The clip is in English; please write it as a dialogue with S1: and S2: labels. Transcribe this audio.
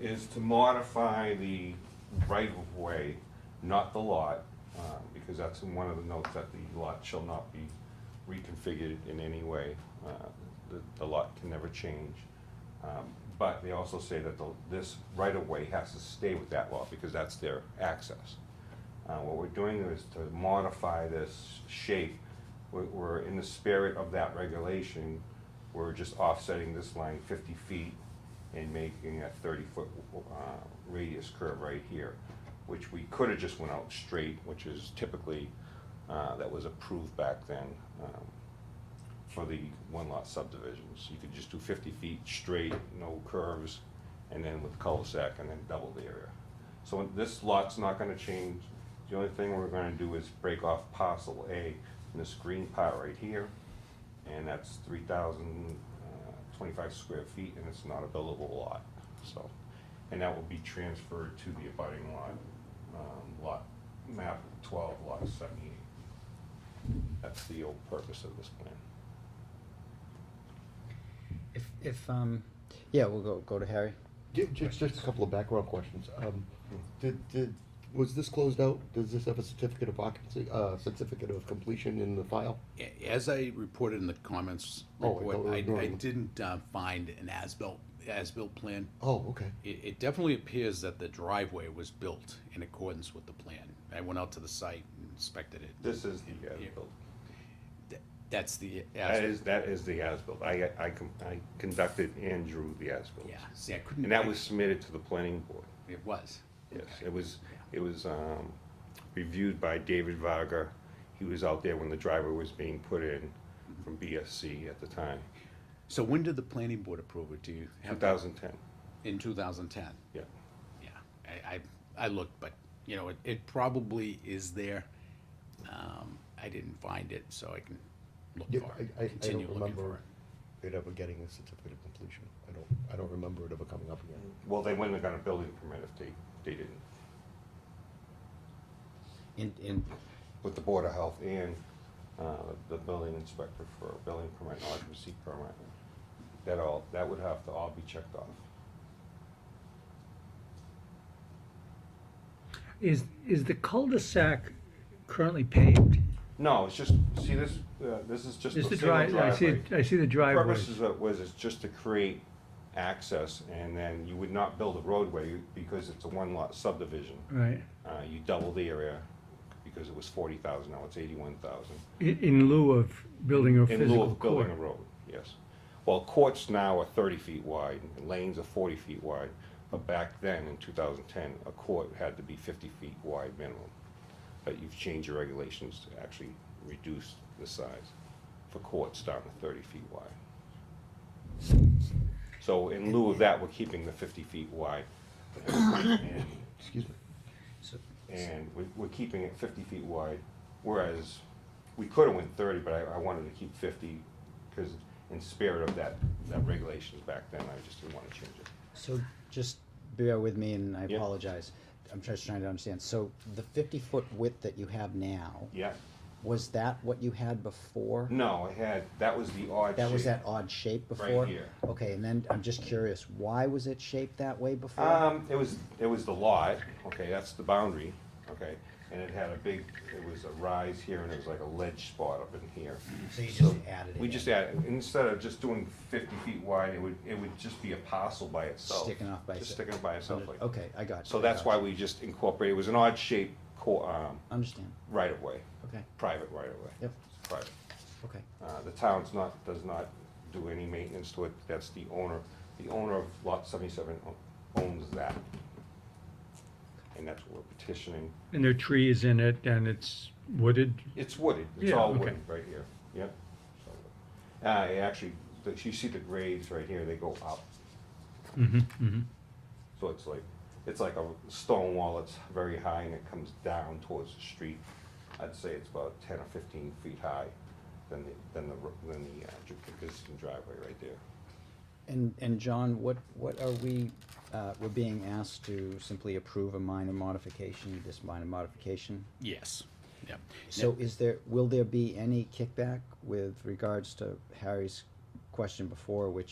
S1: is to modify the right-of-way, not the lot, um, because that's in one of the notes that the lot shall not be reconfigured in any way. Uh, The, the lot can never change. Um, But they also say that the, this right-of-way has to stay with that lot because that's their access. Uh, What we're doing is to modify this shape. We're- We're, in the spirit of that regulation, we're just offsetting this line fifty feet and making a thirty-foot uh, radius curve right here, which we could have just went out straight, which is typically, uh, that was approved back then um, for the one-lot subdivisions. You could just do fifty feet straight, no curves, and then with cul-de-sac, and then double the area. So this lot's not gonna change. The only thing we're gonna do is break off parcel A in this green part right here, and that's three thousand uh, twenty-five square feet, and it's not a buildable lot, so. And that will be transferred to the abutting lot, um, lot, map twelve, lot seventy-eight. That's the old purpose of this plan.
S2: If, if, um, yeah, we'll go, go to Harry.
S3: Ju- ju- Just a couple of background questions. Um, Did, did, was this closed out? Does this have a certificate of occupancy, uh, certificate of completion in the file?
S4: A- As I reported in the comments
S3: Oh, I
S4: report,
S3: thought we were
S4: I, I
S3: doing-
S4: didn't uh, find an as-built, as-built plan.
S3: Oh, okay.
S4: It, it definitely appears that the driveway was built in accordance with the plan. I went out to the site and inspected it.
S1: This is the
S4: Yeah.
S1: as-built.
S4: Th- That's the
S1: That
S4: as,
S1: is, that is the as-built. I, I com- I conducted and drew the as-built.
S4: yeah, see, I couldn't.
S1: And that was submitted to the planning board.
S4: It was.
S1: Yes, it was, it was um, reviewed by David Varga. He was out there when the driver was being put in from BSC at the time,
S4: So when did the planning board approve it? Do you have?
S1: 2010.
S4: In two thousand ten?
S1: Yeah,
S4: Yeah, I, I, I looked, but, you know, it, it probably is there. Um, I didn't find it, so I can look
S3: Yeah,
S4: for
S3: I, I,
S4: it,
S3: I don't
S4: continue looking for
S3: remember it
S4: it.
S3: ever getting a certificate of completion. I don't, I don't remember it ever coming up again.
S1: well, they wouldn't have got a building permit if they, they didn't,
S2: In, in,
S1: with the Board of Health and uh, the building inspector for a building permit, and occupancy permit. That all, that would have to all be checked off.
S5: Is, is the cul-de-sac currently paved?
S1: No, it's just, see this, uh, this is just a
S5: Is the
S1: single
S5: drive,
S1: driveway.
S5: I see, it- I see the driveway.
S1: purpose is, what was is just to create access, and then you would not build a roadway because it's a one-lot subdivision.
S5: Right,
S1: Uh, you double the area because it was forty thousand, now it's eighty-one thousand.
S5: in, in lieu of building a
S1: In lieu
S5: physical
S1: of building
S5: court.
S1: a road, yes. Well, courts now are thirty feet wide, and lanes are forty feet wide, but back then, in two thousand and ten, a court had to be fifty feet wide minimum. But you've changed your regulations to actually reduce the size for courts down to thirty feet wide. So in lieu of that, we're keeping the fifty feet wide. And
S3: Excuse me.
S2: so,
S1: and we, we're keeping it fifty feet wide, whereas we could have went thirty, but I, I wanted to keep fifty, because in spirit of that, that regulations back then, I just didn't want to change it.
S2: so just bear with me and I
S1: Yeah.
S2: apologize. I'm just trying to understand. So the fifty foot width that you have now,
S1: Yeah,
S2: was that what you had before?
S1: no, I had, that was the odd
S2: That was
S1: shape.
S2: that odd shape
S1: Right
S2: before?
S1: here.
S2: Okay, and then I'm just curious, why was it shaped that way before?
S1: Um, it was, it was the lot, okay, that's the boundary, okay, and it had a big, it was a rise here, and it was like a ledge spot up in here.
S2: So you just added it
S1: We
S2: in,
S1: just added, instead of just doing fifty feet wide, it would, it would just be a parcel by itself.
S2: Sticking off by
S1: Just
S2: itself.
S1: sticking by itself like that.
S2: Okay, I got you.
S1: So
S2: I
S1: that's
S2: got
S1: why
S2: you.
S1: we just incorporated, it was an odd shaped co- um,
S2: Understand,
S1: right of way,
S2: okay,
S1: private right of way.
S2: Yep.
S1: It's private.
S2: okay.
S1: Uh, the town's not, does not do any maintenance to it, that's the owner, the owner of lot seventy-seven o- owns that. And that's what we're petitioning,
S5: And there are trees in it and it's wooded.
S1: it's wooded, it's
S5: Yeah,
S1: all
S5: okay.
S1: wooded right here, yep. So, Uh, it actually, the- you see the grades right here, they go up,
S5: Mm-hmm, mm-hmm.
S1: so it's like, it's like a stone wall, it's very high and it comes down towards the street. I'd say it's about ten or fifteen feet high than the, than the, ro- than the uh, dri- existing driveway right there.
S2: And, and John, what, what are we, uh, we're being asked to simply approve a minor modification, this minor modification?
S4: Yes, yeah.
S2: So is there, will there be any kickback with regards to Harry's question before, which